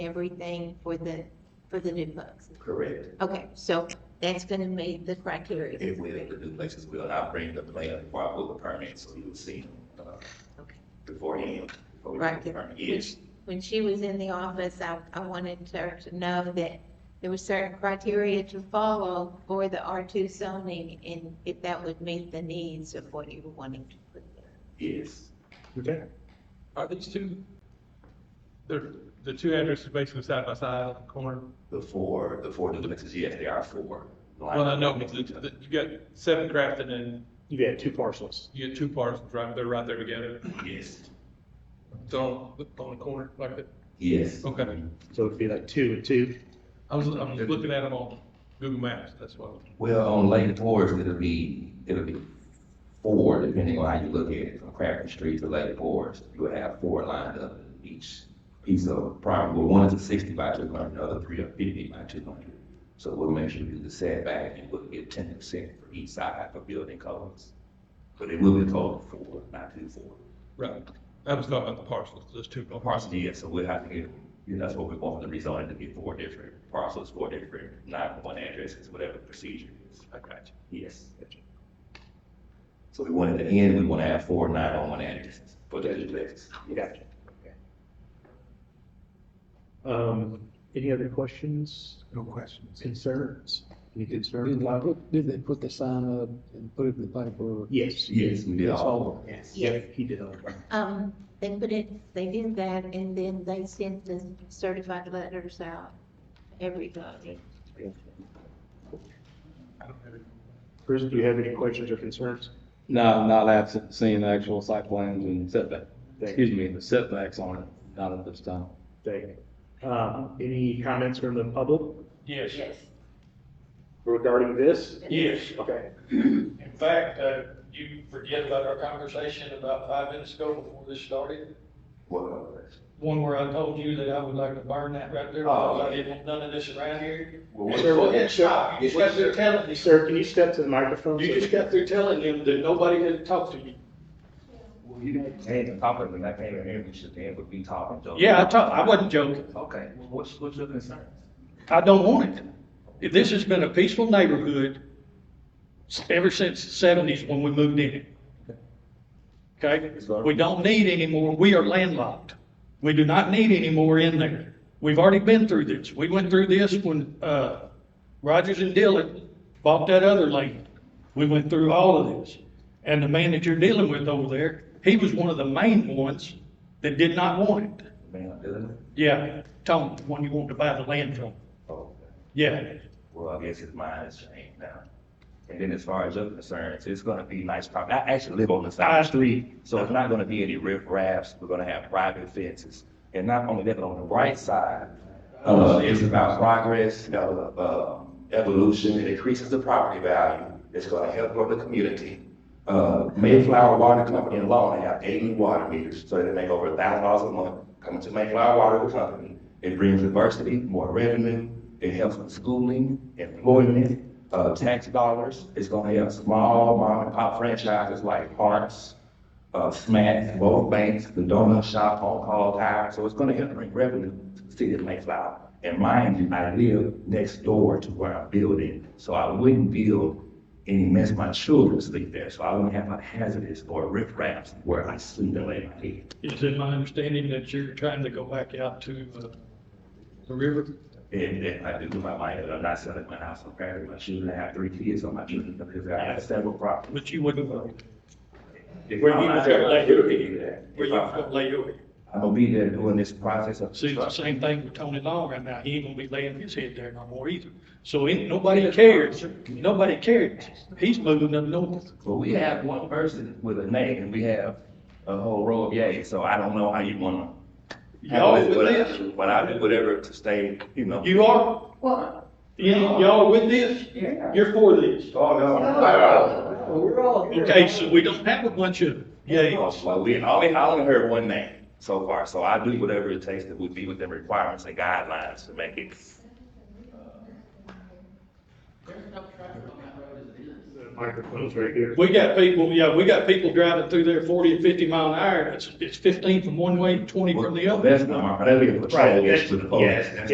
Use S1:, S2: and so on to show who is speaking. S1: everything for the, for the new folks.
S2: Correct.
S1: Okay, so that's gonna meet the criteria.
S2: If we have the duplexes, we'll not bring the plan before I pull the permit, so you'll see, uh,
S1: Okay.
S2: beforehand. before we
S1: Right.
S2: pull the permit. Yes,
S1: When she was in the office, I, I wanted her to know that there were certain criteria to follow for the R two zoning and if that would meet the needs of what you were wanting to put there.
S2: yes.
S3: Okay.
S4: Are these two, they're, the two addresses basically side by side on the corner?
S2: The four, the four duplexes, yes, there are four.
S4: Well, I know, but the- the- you got seven Crafton and
S3: You had two parcels.
S4: you get two parcels right, they're right there together.
S2: Yes,
S4: They're on, on the corner like that.
S2: yes.
S4: Okay.
S3: So it'd be like two and two.
S4: I was, I was looking at them on Google Maps, that's why.
S2: Well, on Lake Forest, it'll be, it'll be four, depending on how you look at it, from Crabtree Street to Lake Forest. You'll have four lined up in each piece of property. Well, one is a sixty by two hundred, the other three are fifty by two hundred. So we'll make sure you do the setback and we'll get ten percent for each side for building colors. But it will be total four, not two four.
S4: Right. I was talking about the parcels, there's two
S2: No
S4: parcels.
S2: parcel yes, so we'll have to get, you know, that's what we want the rezoning to be four different parcels, four different, not one addresses, whatever the procedure is.
S4: I got you.
S2: Yes. So we want at the end, we want to have four nine on one addresses for the duplexes.
S3: Gotcha. Okay. Um, any other questions,
S5: No questions.
S3: concerns? Any
S5: Did
S3: concerns?
S5: I put- did they put the sign up and put it in the paper?
S3: Yes.
S2: Yes, we did all. of them.
S3: Yes.
S1: Yes.
S3: Yep, he did all of them.
S1: Um, they put it, they did that and then they sent the certified letters out, everybody.
S4: I don't have it.
S3: Chris, do you have any questions or concerns?
S6: No, not absent seeing the actual site plans and setback,
S3: Thank you.
S6: excuse me, the setbacks on it, not at this time.
S3: Thank you. Um, any comments from the public
S7: Yes,
S3: regarding this?
S7: yes.
S3: Okay.
S7: In fact, uh, you forget about our conversation about five minutes ago before this started.
S2: Well,
S7: One where I told you that I would like to burn that right there because I didn't want none of this around here.
S2: well,
S3: Sir,
S7: Go ahead, stop. You just got through telling me,
S3: Sir, can you step to the microphone?
S7: you just got through telling them that nobody had talked to you.
S2: well, you didn't say the topic, and I came in here, we should then, but we talking. so-
S7: Yeah, I talked, I wasn't joking.
S2: Okay, well, what's, what's your concern?
S7: I don't want it. If This has been a peaceful neighborhood s- ever since the seventies when we moved in it. Okay? We don't need any more. We are landlocked. We do not need any more in there. We've already been through this. We went through this when, uh, Rogers and Dillon bought that other land. We went through all of this. And the man that you're dealing with over there, he was one of the main ones that did not want it.
S2: Man, I'm doing it.
S7: Yeah, Tony, the one you wanted to buy the land from.
S2: Oh, okay.
S7: Yeah.
S2: well, I guess his mind has changed now. And then as far as your concerns, it's gonna be nice property. I actually live on the side street, so it's not gonna be any riff raps. We're gonna have private fences. And not only that, but on the right side, uh, it's about progress, you know, uh, evolution, it increases the property value. It's gonna help grow the community. Uh, Mayflower Water Company alone, they have eighty water meters, so they make over a thousand dollars a month coming to Mayflower Water Company. It brings diversity, more revenue, it helps with schooling, employment, uh, tax dollars. It's gonna help small mom and pop franchises like Parks, uh, Smack, both banks, the donut shop, on call tire, so it's gonna help bring revenue to the city of Mayflower. And mind you, I live next door to where I'm building, so I wouldn't build any mess my children sleep there, so I wouldn't have a hazardous or riff raps where I sleep and lay my head.
S7: Is it my understanding that you're trying to go back out to uh, the river?
S2: And then I do with my mind, and I'm not selling my house, I'm married, my children, I have three kids on my children, because I have several properties.
S7: But you wouldn't, where
S2: If
S7: Where
S2: I'm
S7: you
S2: not
S7: gonna
S2: there,
S7: lay
S2: I do
S7: your-
S2: do that.
S7: you
S2: If I'm-
S7: gonna lay your,
S2: I'm gonna be there doing this process of.
S7: see, it's the same thing with Tony Long right now, he ain't gonna be laying his head there no more either. So ain't, nobody cares, nobody cares, he's moving up north.
S2: Well, we have one person with a name and we have a whole row of yays, so I don't know how you wanna.
S7: Y'all with
S2: But I-
S7: this,
S2: But I do whatever to stay, you know.
S7: you are,
S8: Well,
S7: you- y'all with this,
S8: yeah.
S7: you're for this.
S2: Oh,
S8: Well, We're all here.
S7: Okay, so we don't have a bunch of yays.
S2: Well, we, I only, I only heard one name so far, so I do whatever it takes that would be within requirements and guidelines to make it.
S3: microphones right here.
S7: We got people, yeah, we got people driving through there forty and fifty mile an hour, it's, it's fifteen from one way, twenty from the other.
S2: That's not, that's a patrol,
S3: Right,
S2: it's
S3: that's-
S2: to the police.
S3: yes,